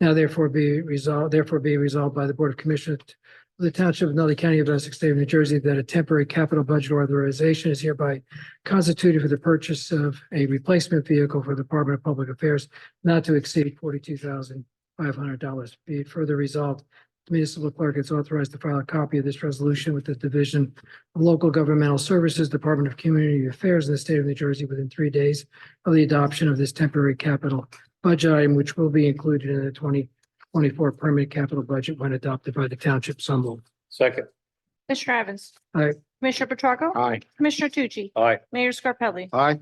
Now therefore be resolved, therefore be resolved by the Board of Commissioners of the Township of Nutley County of Essex State of New Jersey that a temporary capital budget authorization is hereby constituted for the purchase of a replacement vehicle for the Department of Public Affairs not to exceed forty-two thousand five hundred dollars. Be it further resolved, the municipal clerk is authorized to file a copy of this resolution with the Division of Local Governmental Services, Department of Community Affairs in the state of New Jersey within three days of the adoption of this temporary capital budget item, which will be included in the twenty twenty-four permanent capital budget when adopted by the township Sumble. Second. Commissioner Evans. Aye. Commissioner Petracca. Aye. Commissioner Tucci. Aye. Mayor Scarpelli. Aye.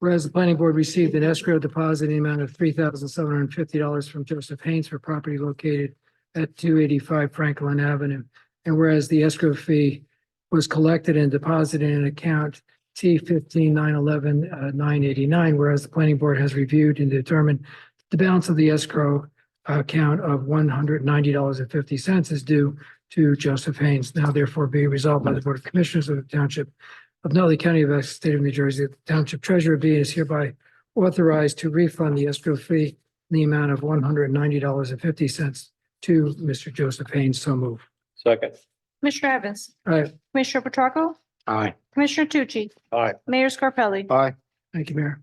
Whereas the planning board received an escrow deposit in the amount of three thousand seven hundred and fifty dollars from Joseph Haynes for property located at two eighty-five Franklin Avenue. And whereas the escrow fee was collected and deposited in account T fifteen nine eleven uh, nine eighty-nine, whereas the planning board has reviewed and determined the balance of the escrow account of one hundred ninety dollars and fifty cents is due to Joseph Haynes. Now therefore be resolved by the Board of Commissioners of the Township of Nutley County of Essex State of New Jersey, the Township Treasurer be and is hereby authorized to refund the escrow fee in the amount of one hundred and ninety dollars and fifty cents to Mr. Joseph Haynes. So move. Second. Commissioner Evans. Aye. Commissioner Petracca. Aye. Commissioner Tucci. Aye. Mayor Scarpelli. Aye. Thank you, Mayor.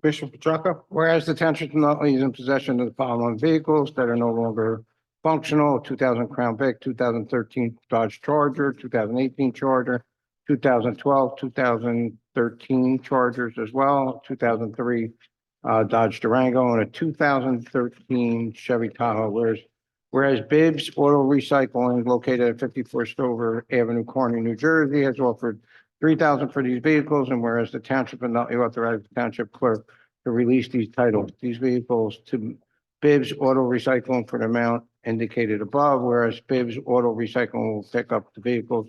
Commissioner Petracca? Whereas the township of Nutley is in possession of the following vehicles that are no longer functional, two thousand Crown Vic, two thousand thirteen Dodge Charger, two thousand eighteen Charger, 2012, 2013 Chargers as well, two thousand three uh, Dodge Durango, and a two thousand thirteen Chevy Tahoe. Whereas, whereas Bibbs Auto Recycling located at fifty-four Stover Avenue, Corning, New Jersey, has offered three thousand for these vehicles, and whereas the township of Nutley authorized the township clerk to release these titles, these vehicles to Bibbs Auto Recycling for the amount indicated above, whereas Bibbs Auto Recycling will pick up the vehicles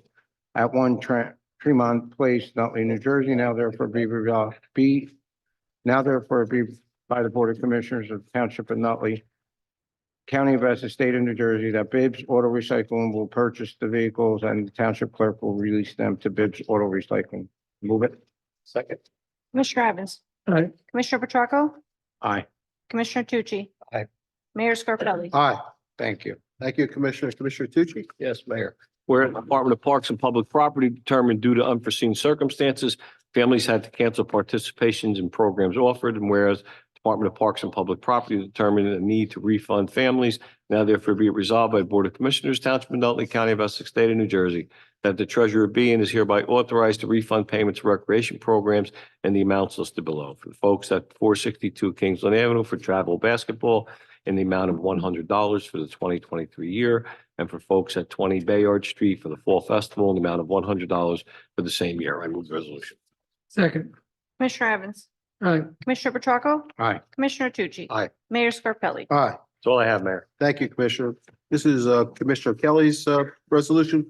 at one Tre- Tremont Place, Nutley, New Jersey, now therefore be resolved, be, now therefore be by the Board of Commissioners of Township of Nutley, County of Essex, State of New Jersey, that Bibbs Auto Recycling will purchase the vehicles and the township clerk will release them to Bibbs Auto Recycling. Move it. Second. Commissioner Evans. Aye. Commissioner Petracca. Aye. Commissioner Tucci. Aye. Mayor Scarpelli. Aye, thank you. Thank you, Commissioner. Commissioner Tucci? Yes, Mayor. Where the Department of Parks and Public Property determined due to unforeseen circumstances, families had to cancel participations in programs offered, and whereas Department of Parks and Public Property determined a need to refund families, now therefore be it resolved by the Board of Commissioners, Township of Nutley County of Essex, State of New Jersey, that the treasurer be and is hereby authorized to refund payments to recreation programs and the amounts listed below. For the folks at four sixty-two Kingsland Avenue for travel basketball in the amount of one hundred dollars for the twenty twenty-three year, and for folks at twenty Bayard Street for the Fall Festival in the amount of one hundred dollars for the same year. I move the resolution. Second. Commissioner Evans. Aye. Commissioner Petracca. Aye. Commissioner Tucci. Aye. Mayor Scarpelli. Aye. That's all I have, Mayor. Thank you, Commissioner. This is uh, Commissioner Kelly's uh, resolution.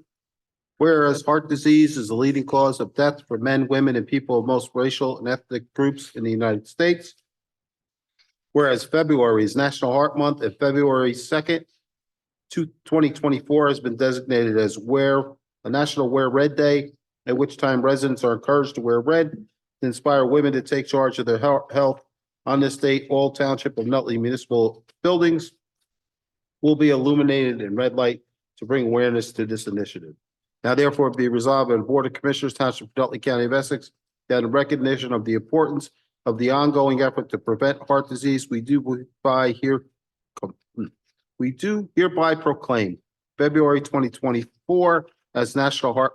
Whereas heart disease is the leading cause of death for men, women, and people of most racial and ethnic groups in the United States. Whereas February is National Heart Month and February second, two, twenty twenty-four has been designated as Wear, a National Wear Red Day, at which time residents are encouraged to wear red to inspire women to take charge of their health, health. On this date, all township of Nutley municipal buildings will be illuminated in red light to bring awareness to this initiative. Now therefore be resolved by the Board of Commissioners Township of Nutley County of Essex that in recognition of the importance of the ongoing effort to prevent heart disease, we do by here hmm, we do hereby proclaim February twenty twenty-four as National Heart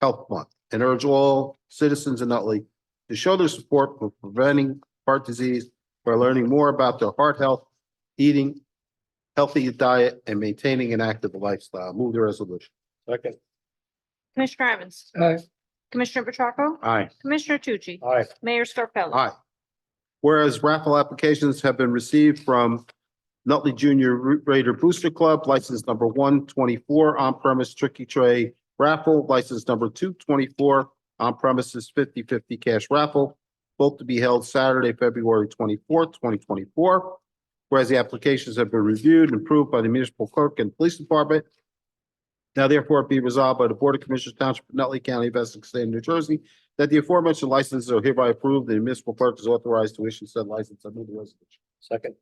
Health Month and urge all citizens in Nutley to show their support for preventing heart disease by learning more about their heart health, eating healthy diet and maintaining an active lifestyle. Move the resolution. Second. Commissioner Evans. Aye. Commissioner Petracca. Aye. Commissioner Tucci. Aye. Mayor Scarpelli. Aye. Whereas raffle applications have been received from Nutley Junior Raider Booster Club, license number one twenty-four, on-premise tricky tray raffle, license number two twenty-four, on-premises 50-50 cash raffle, both to be held Saturday, February twenty-fourth, twenty twenty-four. Whereas the applications have been reviewed and approved by the municipal clerk and police department. Now therefore be resolved by the Board of Commissioners Township of Nutley County of Essex State of New Jersey that the aforementioned licenses are hereby approved and the municipal clerk is authorized to issue said license. I move the resolution. Second.